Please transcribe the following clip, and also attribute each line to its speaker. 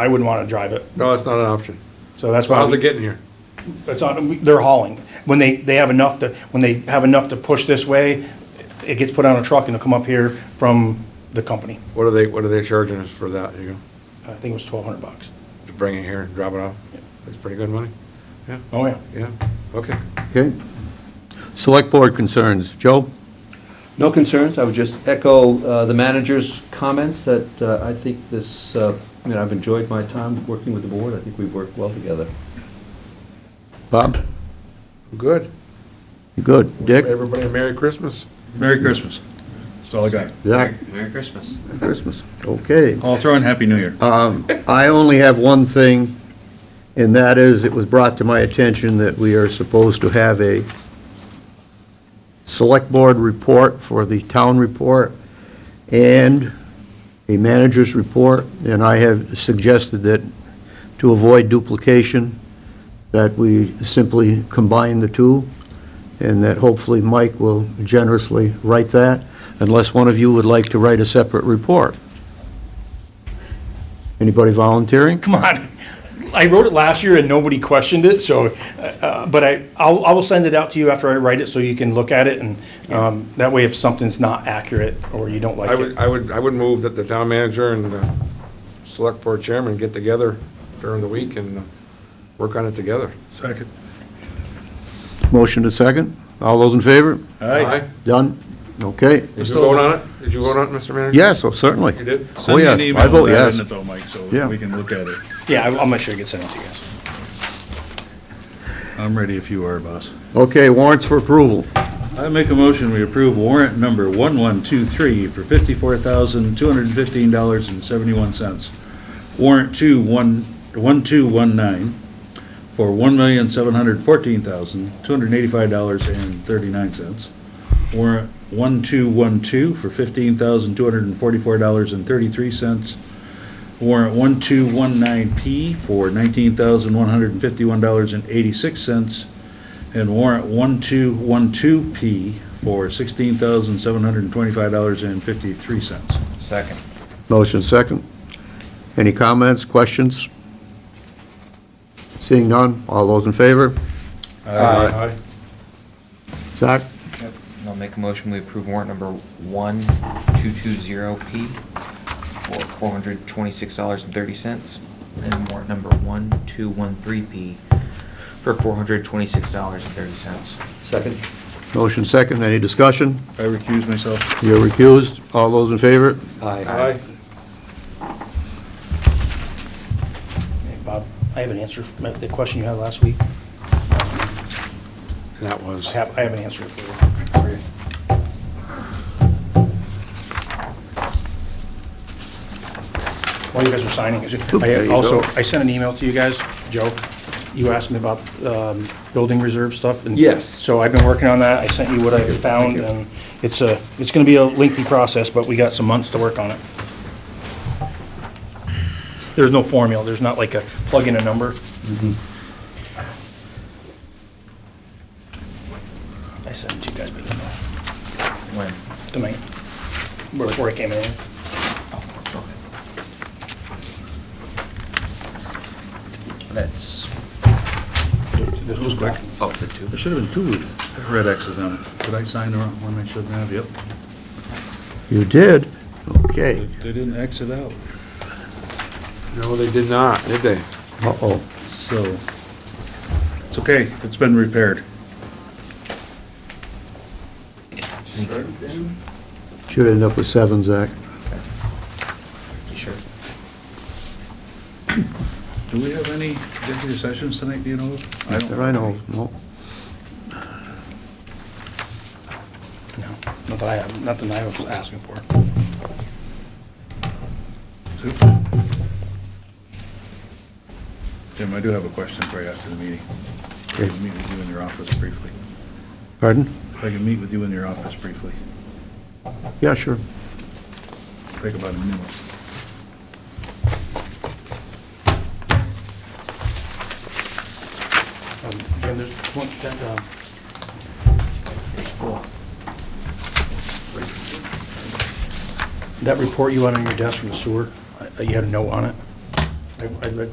Speaker 1: I wouldn't want to drive it.
Speaker 2: No, that's not an option.
Speaker 1: So that's
Speaker 2: So
Speaker 1: why.
Speaker 2: how's
Speaker 1: we-
Speaker 2: it getting here?
Speaker 1: It's on, they're hauling. When they, they have enough to, when they have enough to push this way, it gets put on a truck and it'll come up here from the company.
Speaker 2: What are they, what are they charging us for that, you know,
Speaker 1: I think it was twelve hundred bucks.
Speaker 2: to bring it here and drop it off? That's pretty good money. Yeah,
Speaker 1: Oh, yeah.
Speaker 2: yeah, okay.
Speaker 3: Okay. Select Board concerns. Joe?
Speaker 4: No concerns, I would just echo uh, the manager's comments that uh, I think this, uh, I mean, I've enjoyed my time working with the board, I think we've worked well together.
Speaker 3: Bob?
Speaker 2: Good.
Speaker 3: You good? Dick?
Speaker 2: Everybody a Merry Christmas.
Speaker 5: Merry Christmas. That's all I got.
Speaker 3: Zach?
Speaker 6: Merry Christmas.
Speaker 3: Christmas. Okay.
Speaker 5: I'll throw in Happy New Year.
Speaker 3: Um, I only have one thing, and that is, it was brought to my attention that we are supposed to have a Select Board report for the town report and a manager's report, and I have suggested that, to avoid duplication, that we simply combine the two, and that hopefully Mike will generously write that, unless one of you would like to write a separate report. Anybody volunteering?
Speaker 1: Come on. I wrote it last year and nobody questioned it, so, uh, uh, but I, I'll, I will send it out to you after I write it so you can look at it and, um, that way if something's not accurate or you don't
Speaker 2: I
Speaker 1: like
Speaker 2: would,
Speaker 1: it.
Speaker 2: I would, I would move that the town manager and uh, select board chairman get together during the week and uh, work on it together.
Speaker 5: Second.
Speaker 3: Motion to second. All those in favor?
Speaker 5: Aye.
Speaker 3: Done? Okay.
Speaker 2: Did you vote on it? Did you vote on it, Mr. Manager?
Speaker 3: Yes, oh, certainly.
Speaker 2: You did?
Speaker 3: Oh,
Speaker 5: Send me
Speaker 3: yes.
Speaker 5: an email
Speaker 3: I vote
Speaker 5: with that
Speaker 3: yes.
Speaker 5: in it though, Mike, so
Speaker 3: Yeah.
Speaker 5: we can look at it.
Speaker 1: Yeah, I'll I'll make sure it gets sent out to you guys.
Speaker 5: I'm ready if you are, boss.
Speaker 3: Okay, warrants for approval.
Speaker 5: I make a motion, we approve warrant number 1123 for $54,215.71. Warrant two one one two one nine for $1,714,285.39. Warrant 1212 for $15,244.33. Warrant 1219P for $19,151.86. And warrant 1212P for $16,725.53.
Speaker 6: Second.
Speaker 3: Motion second. Any comments, questions? Seeing none, all those in favor?
Speaker 2: Aye.
Speaker 3: Zach?
Speaker 6: I'll make a motion, we approve warrant number 1220P for $426.30. And warrant number 1213P for $426.30.
Speaker 4: Second?
Speaker 3: Motion second. Any discussion?
Speaker 5: I recuse myself.
Speaker 3: You're recused. All those in favor?
Speaker 2: Aye.
Speaker 1: Hey, Bob, I have an answer for the question you had last week.
Speaker 2: And That was.
Speaker 1: I have, I have an answer for you. While you guys are signing,
Speaker 3: There
Speaker 1: I
Speaker 3: you
Speaker 1: also,
Speaker 3: go.
Speaker 1: I sent an email to you guys, Joe, you asked me about um, building reserve stuff. and-
Speaker 2: Yes.
Speaker 1: So I've been working on that, I sent you what I found, and it's a, it's gonna be a lengthy process, but we got some months to work on it. There's no formula, there's not like a plug in a number. I sent it to you guys, but you know
Speaker 6: When?
Speaker 1: tonight, before I came in.
Speaker 6: Oh, Okay. That's,
Speaker 1: This was quick.
Speaker 6: oh, the two.
Speaker 5: There should have been two red X's on it. Did I sign the wrong one I shouldn't have? Yep.
Speaker 3: You did? Okay.
Speaker 5: They didn't X it out.
Speaker 2: No, they did not, did they?
Speaker 3: Uh-oh.
Speaker 5: So, it's okay, it's been repaired.
Speaker 6: Thank you.
Speaker 3: Should end up with seven, Zach.
Speaker 6: You Sure.
Speaker 5: Do we have any executive sessions tonight, do you know? of? don't-
Speaker 3: There I know. No.
Speaker 1: No, not that I have, not that I was asking for.
Speaker 5: Jim, I do have a question for you after the meeting. If I can meet with you in your office briefly.
Speaker 3: Pardon?
Speaker 5: If I can meet with you in your office briefly,
Speaker 3: Yeah, sure.
Speaker 5: take about a minute.
Speaker 1: And there's one, that, um, That report you had on your desk from the sewer, uh, you had a note on it? I- I'd like